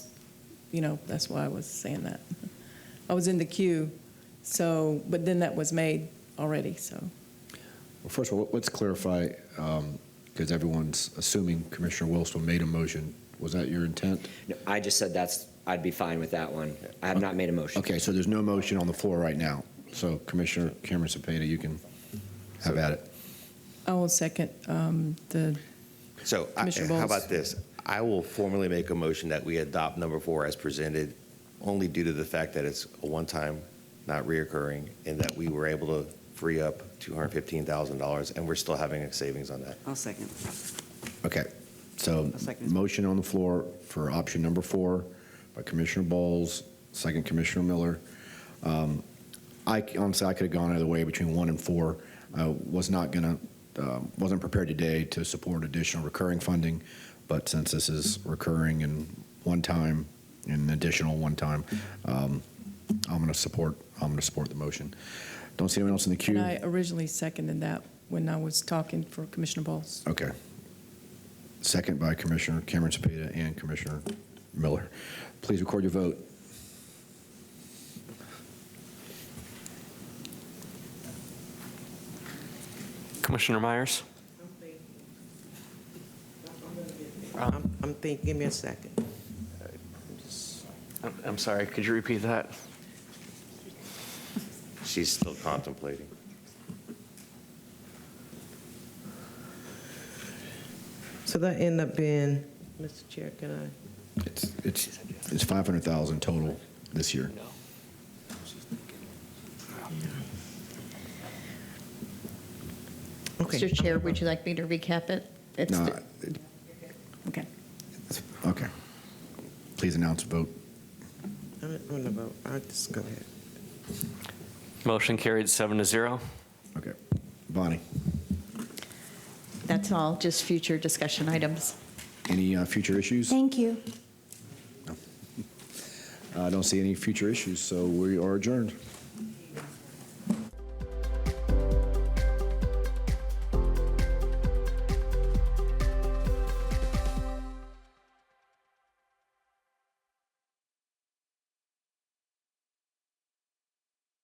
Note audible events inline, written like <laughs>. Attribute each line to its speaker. Speaker 1: you know, that's why I was saying that. <laughs> I was in the queue, so, but then that was made already, so.
Speaker 2: Well, first of all, let's clarify, because everyone's assuming Commissioner Wilson made a motion. Was that your intent?
Speaker 3: No, I just said that's, I'd be fine with that one. I have not made a motion.
Speaker 2: Okay, so there's no motion on the floor right now. So Commissioner Cameron Cepeda, you can have at it.
Speaker 1: I will second um, the,
Speaker 4: So I-
Speaker 1: Commissioner
Speaker 4: how
Speaker 1: Bowles.
Speaker 4: about this? I will formally make a motion that we adopt number four as presented, only due to the fact that it's a one-time, not reoccurring, and that we were able to free up $215,000, and we're still having a savings on that.
Speaker 5: I'll second.
Speaker 2: Okay, so
Speaker 5: A second.
Speaker 2: motion on the floor for option number four by Commissioner Bowles, second Commissioner Miller. Um, I honestly, I could have gone either way between one and four. I was not going to, wasn't prepared today to support additional recurring funding, but since this is recurring and one time, and additional one time, um, I'm going to support, I'm going to support the motion. Don't see anyone else in the queue?
Speaker 1: and I originally seconded that when I was talking for Commissioner Bowles.
Speaker 2: Okay. Second by Commissioner Cameron Cepeda and Commissioner Miller. Please record your vote.
Speaker 6: Commissioner Myers?
Speaker 7: Um,
Speaker 6: Um,
Speaker 7: I'm, I'm thinking, give me a second.
Speaker 6: I'm- I'm sorry, could you repeat that?
Speaker 4: She's still contemplating.
Speaker 7: So that end up being, Mr. Chair, can I?
Speaker 2: It's, it's, it's 500,000 total this year.
Speaker 7: Okay.
Speaker 8: Mr. Chair, would you like me to recap it? It's
Speaker 2: No,
Speaker 8: the- Okay.
Speaker 2: it's- Okay. Please announce vote.
Speaker 7: I don't want to vote. I'll just go ahead.
Speaker 6: Motion carried seven to zero.
Speaker 2: Okay. Bonnie,
Speaker 8: That's all, just future discussion items.
Speaker 2: any uh, future issues?
Speaker 8: Thank you.
Speaker 2: I don't see any future issues, so we are adjourned.